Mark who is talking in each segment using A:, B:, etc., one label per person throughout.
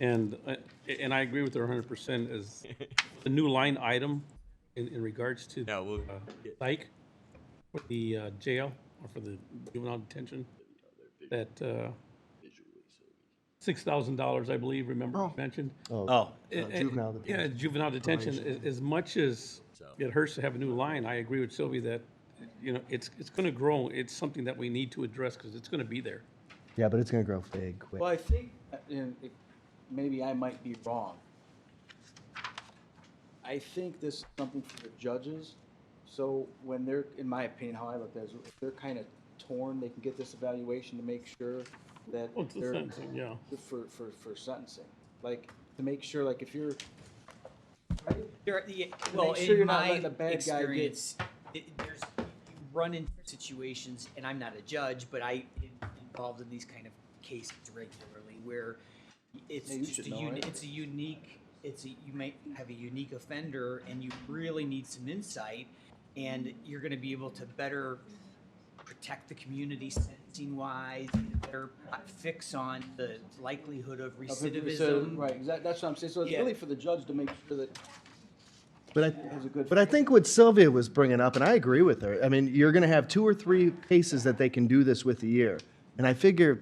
A: And, uh, and I agree with her hundred percent is the new line item in, in regards to
B: No, we'll,
A: uh, psych for the uh, jail or for the juvenile detention. That, uh, six thousand dollars, I believe, remember mentioned?
B: oh,
A: And- and-
C: uh, juvenile detention.
A: Yeah, juvenile detention, as, as much as it hurts to have a new line, I agree with Sylvie that, you know, it's, it's gonna grow. It's something that we need to address because it's gonna be there.
C: Yeah, but it's gonna grow big quick.
D: Well, I think, uh, and it- maybe I might be wrong. I think this is something for the judges, so when they're, in my opinion, how I look at it, is if they're kind of torn, they can get this evaluation to make sure that
A: Well, it's the
D: they're,
A: same thing, yeah.
D: for, for, for sentencing. Like, to make sure, like, if you're,
E: There, yeah, well,
D: make sure you're
E: in
D: not
E: my
D: letting the bad guy get-
E: experience, it, there's you run into situations, and I'm not a judge, but I am involved in these kind of cases regularly where it's
D: Yeah, you
E: just
D: should
E: a
D: know,
E: uni-
D: right?
E: it's a unique it's a, you might have a unique offender, and you really need some insight, and you're going to be able to better protect the community sentencing wise, better fix on the likelihood of
D: of it-
E: recidivism.
D: so- right, 'cause that- that's what I'm saying, so it's
E: Yeah.
D: really for the judge to make sure that
C: But I,
D: was a good-
C: but I think what Sylvia was bringing up, and I agree with her. I mean, you're going to have two or three cases that they can do this with a year, and I figure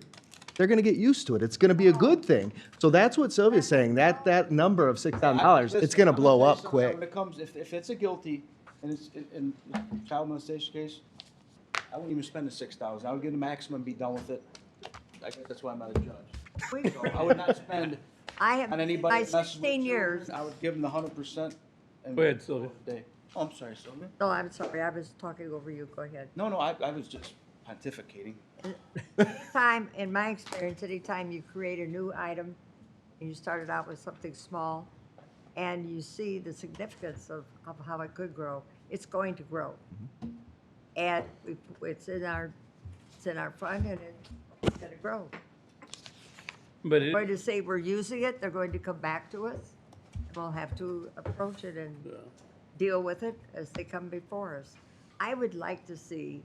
C: they're going to get used to it. It's going to be a good thing. So that's what Sylvia's saying. That that number of six thousand dollars, it's
D: Listen,
C: going to
D: I'm gonna
C: blow
D: tell you
C: up
D: something,
C: quick.
D: When it comes, if, if it's a guilty and it's in child molestation case, I wouldn't even spend the six thousand. I would get a maximum and be done with it. I guess that's why I'm not a judge.
F: We've-
D: So I would not spend
F: I have,
D: on
F: in
D: anybody
F: my
D: that messes with
F: 16 years,
D: children. I would give them the hundred percent.
A: Go ahead, Sylvia.
D: Oh, I'm sorry, Sylvia.
F: no, I'm sorry, I was talking over you, go ahead.
D: No, no, I, I was just pontificating.
F: Time, in my experience, anytime you create a new item, and you started out with something small, and you see the significance of, of how it could grow, it's going to grow.
D: Mm-hmm.
F: And we- it's in our, it's in our fund, and it's gonna grow.
A: But it,
F: We're Going to say we're using it, they're going to come back to us, and we'll have to approach it and
A: yeah.
F: deal with it as they come before us. I would like to see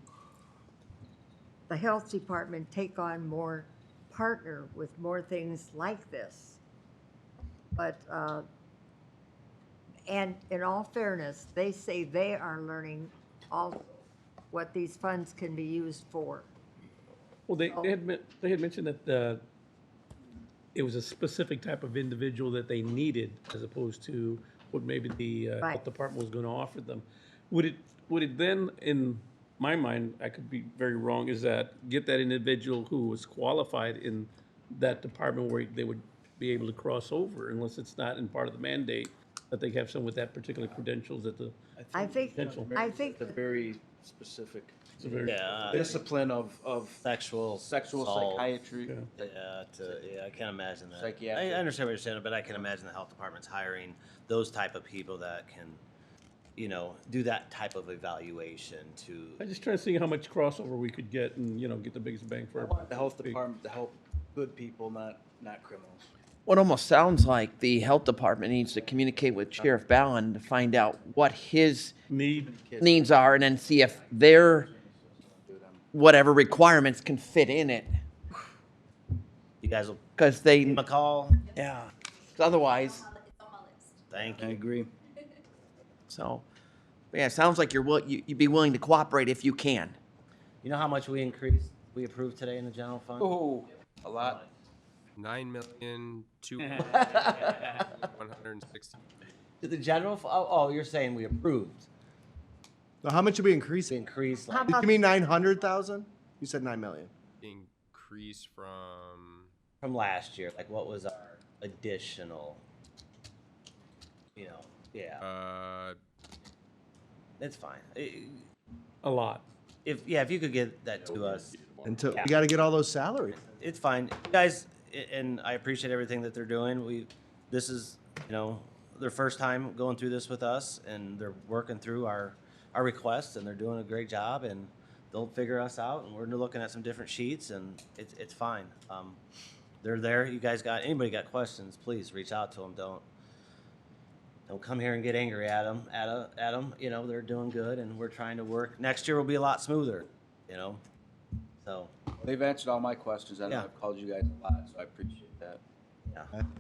F: the health department take on more, partner with more things like this. But, uh, and in all fairness, they say they are learning all what these funds can be used for.
A: Well, they, they had, men- they had mentioned that, uh, it was a specific type of individual that they needed as opposed to what maybe the, uh,
F: Right.
A: health department was gonna offer them. Would it, would it then, in my mind, I could be very wrong, is that get that individual who was qualified in that department where they would be able to cross over unless it's not in part of the mandate, that they have someone with that particular credentials at the,
F: I think,
A: Potential.
F: I think,
D: The very specific
A: it's a very-
G: Yeah,
D: discipline of, of
G: sexual,
D: sexual
G: assault.
D: psychiatry.
G: Yeah, to, yeah, I can't imagine that.
D: Psychiatric.
G: I, I understand what you're saying, but I can imagine the health department's hiring those type of people that can, you know, do that type of evaluation to.
A: I'm just trying to see how much crossover we could get and, you know, get the biggest bang for
D: I
A: our
D: want the health
A: big-
D: department to help good people, not, not criminals.
H: Well, it almost sounds like the health department needs to communicate with Sheriff Ballin to find out what his
A: Need,
H: needs are and then see if their whatever requirements can fit in it.
G: You guys will
H: Because they,
G: give them a call.
H: yeah, 'Cause otherwise,
I: It's on my list.
G: Thank
D: I
G: you.
D: agree.
H: so, yeah, it sounds like you're, will- you- you'd be willing to cooperate if you can.
G: You know how much we increased, we approved today in the general fund?
D: Oh, a lot.
J: Nine million two one hundred and sixty.
G: Did the general, fu- oh, oh, you're saying we approved,
C: So how much are we
G: we
C: increasing?
G: increased
F: How
G: like,
C: Did you mean nine hundred thousand? You said nine million.
J: increase from
G: from last year, like what was our additional? You know, yeah,
J: uh
G: it's fine. I-
A: a lot.
G: If, yeah, if you could get that to us,
C: Until
G: Yeah.
C: you got to get all those salaries.
G: it's fine. You guys, a- and I appreciate everything that they're doing. We, this is, you know, their first time going through this with us and they're working through our, our requests and they're doing a great job and they'll figure us out and we're looking at some different sheets and it's, it's fine. Um, they're there. You guys got, anybody got questions, please reach out to them. Don't, don't come here and get angry at them, at, a- at them. You know, they're doing good and we're trying to work. Next year will be a lot smoother, you know? So,
D: They've answered all my questions. I know
G: Yeah.
D: I've called you guys a lot, so I appreciate that.
G: yeah.